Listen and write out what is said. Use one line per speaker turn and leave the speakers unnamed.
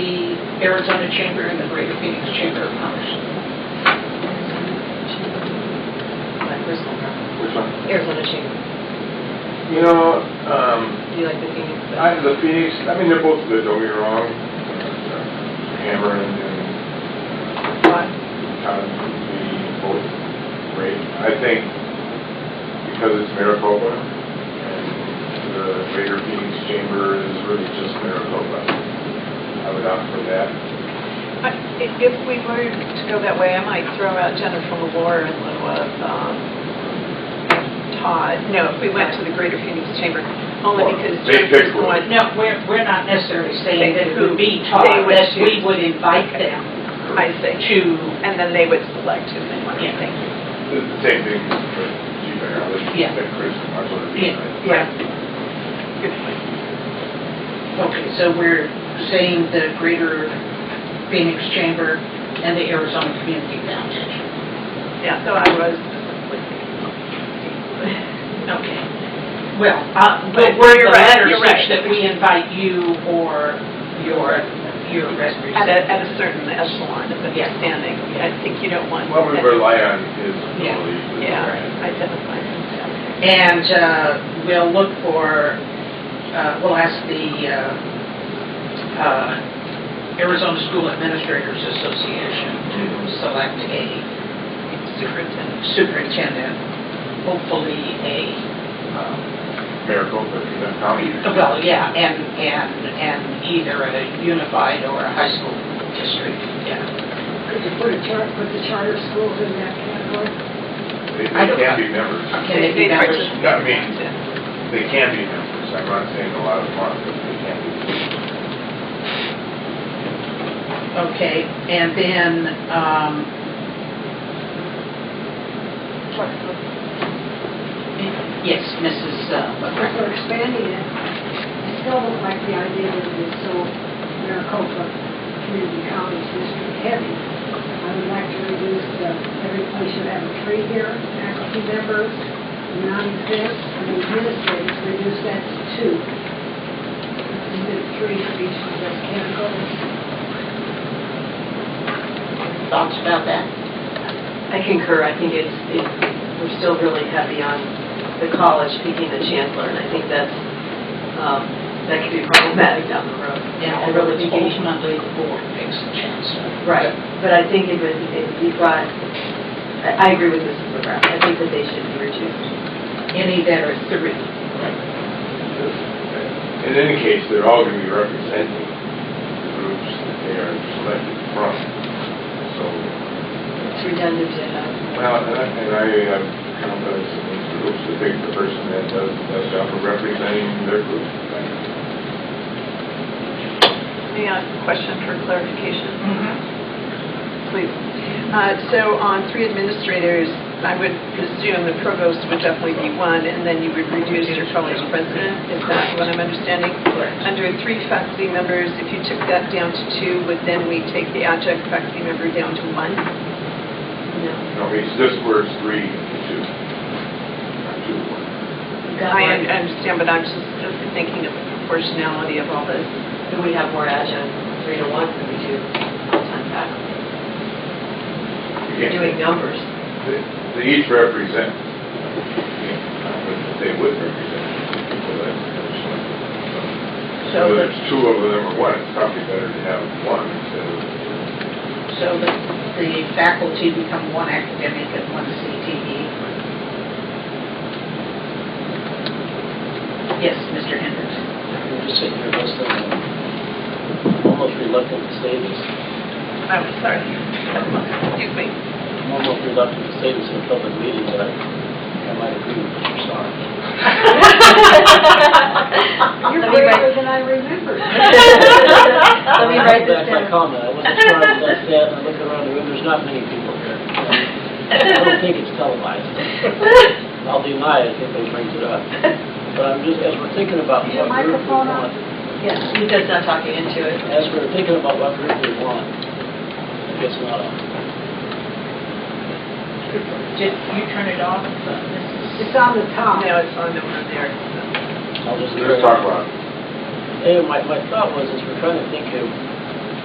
Arizona Chamber and the Greater Phoenix Chamber of Commerce.
My personal preference.
Which one?
Arizona Chamber.
You know, um,
Do you like the Phoenix?
I, the Phoenix, I mean, they're both good, don't get me wrong. Hammer and, and Todd, the both great. I think because it's Maricopa, and the Greater Phoenix Chamber is really just Maricopa, I would opt for that.
I- i- If we were to go that way, I might throw out Jennifer Lawler in lieu of um, Todd. No, if we went to the Greater Phoenix Chamber, only
Well,
because
they
Jennifer's
pick
the
one.
one.
No, we're, we're not necessarily saying that it would be
They
Todd,
would
that
choose.
we would invite them
I see.
to,
And then they would select who they want to
Yeah.
think.
It's the same thing for G-Bear, I would
Yeah.
pick Chris and Marshall. to be
yeah, yeah.
my-
Okay, so we're saying the Greater Phoenix Chamber and the Arizona Community Foundation.
Yeah, so I was.
Okay. Well, uh, but were
You're
your
right,
letters
you're
such
right.
that we invite you or your, your representative?
At a, at a certain echelon of
Yeah.
understanding. I think you don't want.
What we rely on is
Yeah.
really. the
Yeah,
brand.
identify themselves.
And uh, we'll look for, uh, we'll ask the uh, uh, Arizona School Administrators Association to select a
Superintendent.
superintendent, hopefully a, um,
Maricopa, Pima County.
well, yeah, and, and, and either a unified or a high school district, yeah.
Could you put a char, put the charter schools in that category?
They,
I
they
don't-
can be members.
Can they be members?
Yeah, I mean, they can be members. I'm not saying a lot of them are, but they can be.
Okay, and then, um, yes, uh, Mrs.
Because
McCracken.
we're expanding it, I still don't like the idea that it is so Maricopa Community College District heavy. I would like to reduce the, every place should have a tree here, faculty members, non-exempts, and administrators, reduce that to two. Instead of three for each of those categories.
Thoughts about that?
I concur, I think it's, it- we're still really heavy on the college picking the chancellor, and I think that's, um, that could be problematic down the road.
Yeah,
And really thinking-
ultimately, the board picks the chancellor.
Right, but I think if it, if you brought, I, I agree with Mrs. McGrath, I think that they should be reduced.
Any that are three.
In any case, they're all going to be representing the groups that they are selected from. So,
It's redundant to
uh,
have.
well, and I, and I have confidence in these groups to pick the person that does the best job of representing their group.
May I ask a question for clarification?
Mm-hmm.
please. Uh, So on three administrators, I would presume the provost would definitely be one, and then you would reduce your college president, is that what I'm understanding?
Correct.
Under three faculty members, if you took that down to two, would then we take the adjunct faculty member down to one? No.
No, it's this word's three, two. Not two, one.
I un- understand, but I'm just thinking of the proportionality of all this.
Do we have more adjunct, three to one, than we do full-time faculty? You're doing numbers.
They they each represent, they would represent the people that are selected.
So the,
Whether it's two of them or one, it's probably better to have one instead of
so the, the faculty become one academic and one E? CTE. Yes, Mr. Hendricks.
You're just sitting here listening, I'm almost reluctant to say this,
I'm Oh, sorry. Excuse me.
I'm almost reluctant to say this in a public meeting, but I I might agree with Mr. Starr.
You're
Let me write-
braver than I remembered.
Let me write this
Back my
down.
comment, I wasn't sure if that's that, and I look around the room, there's not many people here. I don't think it's televised. I'll deny it if they bring it up. But I'm just, as we're thinking about
Is your
what group we
microphone on?
want,
Yes, he's just not talking into it.
as we're thinking about what group we want, it's not on.
Did you turn it off? Mrs.
It's on the top.
No, it's on the one there.
uh,
I'll just.
Let's talk about it.
Anyway, my, my thought was, is we're trying to think of